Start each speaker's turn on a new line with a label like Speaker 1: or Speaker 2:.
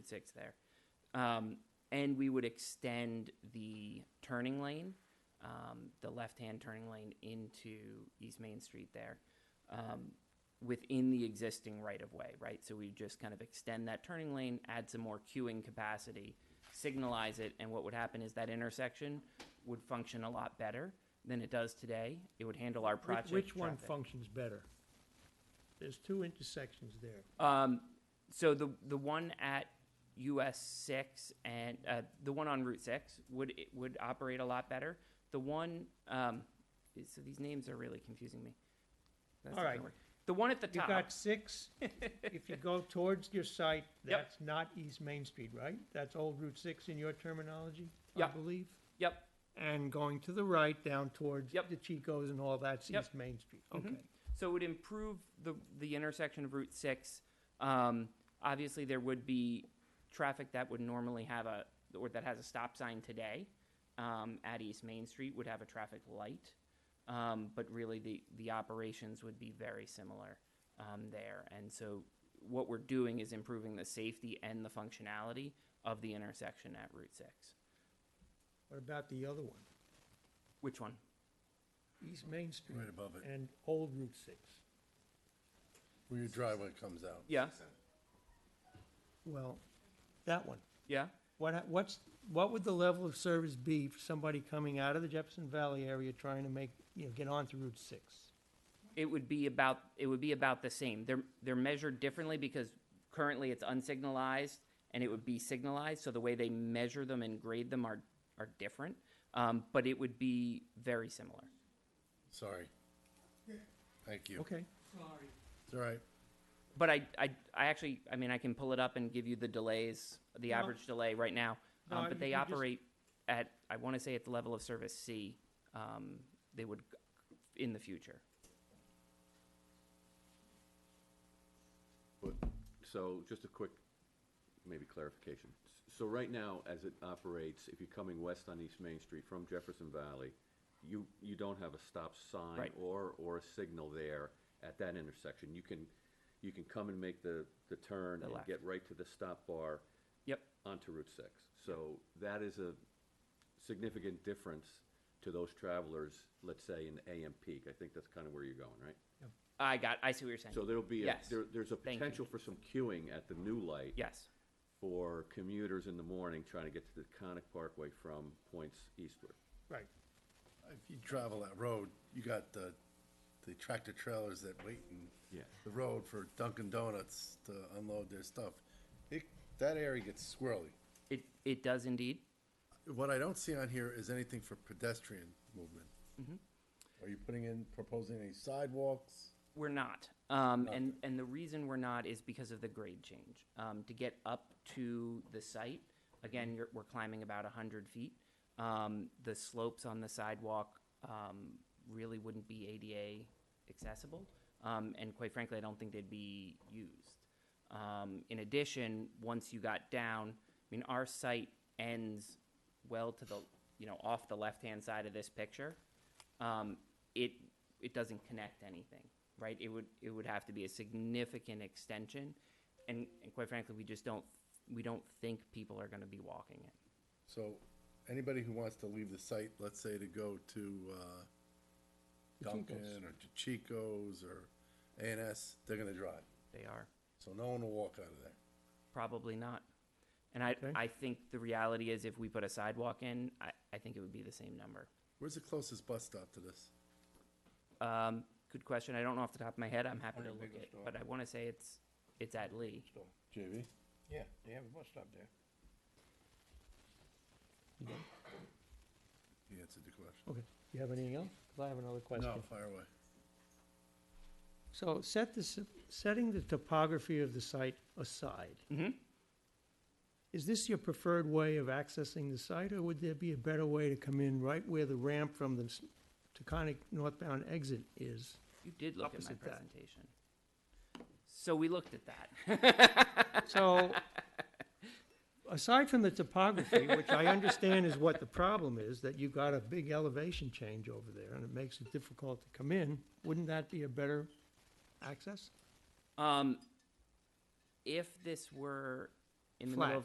Speaker 1: six there. Um, and we would extend the turning lane, um, the left-hand turning lane into East Main Street there, um, within the existing right-of-way, right? So we just kind of extend that turning lane, add some more queuing capacity, signalize it, and what would happen is that intersection would function a lot better than it does today. It would handle our
Speaker 2: Which-
Speaker 1: project
Speaker 2: Which one
Speaker 1: traffic.
Speaker 2: functions better? There's two intersections there.
Speaker 1: Um, so the the one at US six and uh, the one on Route six would it would operate a lot better. The one um, so these names are really confusing me. That's
Speaker 2: All
Speaker 1: not
Speaker 2: right.
Speaker 1: gonna work. The one at the
Speaker 2: You
Speaker 1: top.
Speaker 2: got six, if you go towards your site,
Speaker 1: Yep.
Speaker 2: that's not East Main Street, right? That's old Route six in your terminology, I
Speaker 1: Yep.
Speaker 2: believe?
Speaker 1: yep.
Speaker 2: And going to the right down towards
Speaker 1: Yep.
Speaker 2: the Chicos and all, that's
Speaker 1: Yep.
Speaker 2: East Main Street,
Speaker 1: Mhm.
Speaker 2: okay.
Speaker 1: So it would improve the, the intersection of Route 6. Um, obviously, there would be traffic that would normally have a, or that has a stop sign today um, at East Main Street would have a traffic light. Um, but really, the, the operations would be very similar um, there. And so what we're doing is improving the safety and the functionality of the intersection at Route 6.
Speaker 2: What about the other one?
Speaker 1: Which one?
Speaker 2: East Main Street
Speaker 3: Right above it,
Speaker 2: and old Route six.
Speaker 3: where your driveway comes out.
Speaker 1: Yeah.
Speaker 2: Well, that one.
Speaker 1: Yeah.
Speaker 2: What, ha- what's, what would the level of service be for somebody coming out of the Jefferson Valley area trying to make, you know, get onto Route six?
Speaker 1: it would be about it would be about the same. They're they're measured differently because currently it's unsignalized and it would be signalized. So the way they measure them and grade them are are different, um, but it would be very similar.
Speaker 3: Sorry. Thank you.
Speaker 2: Okay.
Speaker 3: It's all right.
Speaker 1: But I, I I actually I mean I can pull it up and give you the delays, the
Speaker 2: No.
Speaker 1: average delay right now.
Speaker 2: No,
Speaker 1: Um,
Speaker 2: you
Speaker 1: but they
Speaker 2: can just-
Speaker 1: operate at I want to say at the level of service C. Um, they would g- in the future.
Speaker 4: But- So just a quick, maybe clarification. S- So right now, as it operates, if you're coming west on East Main Street from Jefferson Valley, you, you don't have a stop sign
Speaker 1: Right.
Speaker 4: or, or a signal there at that intersection. You can, you can come and make the, the turn
Speaker 1: The
Speaker 4: and
Speaker 1: left.
Speaker 4: get right to the stop bar
Speaker 1: Yep.
Speaker 4: onto Route 6. So that is a significant difference to those travelers, let's say in AM peak. I think that's kind of where you're going, right?
Speaker 1: I got I see what you're saying.
Speaker 4: So there'll be, a-
Speaker 1: Yes.
Speaker 4: there, there's a
Speaker 1: Thank you.
Speaker 4: potential for some queuing at the new light
Speaker 1: yes.
Speaker 4: for commuters in the morning trying to get to the Conic Parkway from points eastward.
Speaker 2: Right.
Speaker 3: If you travel that road, you got the, the tractor trailers that wait in
Speaker 4: Yeah.
Speaker 3: the road for Dunkin' Donuts to unload their stuff. It, that area gets squirrely.
Speaker 1: It it does indeed.
Speaker 3: What I don't see on here is anything for pedestrian movement. Are you putting in, proposing any sidewalks?
Speaker 1: We're not. Um, and, and the reason we're not is because of the grade change. Um, to get up to the site, again, you're, we're climbing about hundred feet. Um, the slopes on the sidewalk, um, really wouldn't be ADA accessible. Um, and quite frankly, I don't think they'd be used. Um, in addition, once you got down, I mean, our site ends well to the, you know, off the left-hand side of this picture um, it, it doesn't connect anything, right? It would, it would have to be a significant extension, and, and quite frankly, we just don't, we don't think people are gonna be walking it.
Speaker 3: So anybody who wants to leave the site, let's say to go to uh, Dunkin' or to Chico's or A and S, they're gonna drive.
Speaker 1: They are,
Speaker 3: So no one will walk out of there.
Speaker 1: probably not. And I, I think the reality is if we put a sidewalk in, I, I think it would be the same number.
Speaker 3: Where's the closest bus stop to this?
Speaker 1: Um, good question, I don't know off the top of my head, I'm happy to look at, but I wanna say it's, it's at Lee.
Speaker 3: JV?
Speaker 5: Yeah, they have a bus stop there.
Speaker 3: He answered the question.
Speaker 2: Okay. You have anything else? 'Cause I have another question.
Speaker 3: No, fire away.
Speaker 2: So set this, setting the topography of the site aside.
Speaker 1: Mhm.
Speaker 2: Is this your preferred way of accessing the site, or would there be a better way to come in right where the ramp from the s- Taconic northbound exit is?
Speaker 1: You did look at my
Speaker 2: Opposite that.
Speaker 1: presentation. So we looked at that.
Speaker 2: So, aside from the topography, which I understand is what the problem is, that you got a big elevation change over there, and it makes it difficult to come in, wouldn't that be a better access?
Speaker 1: Um, if this were in the
Speaker 2: Flat.
Speaker 1: middle of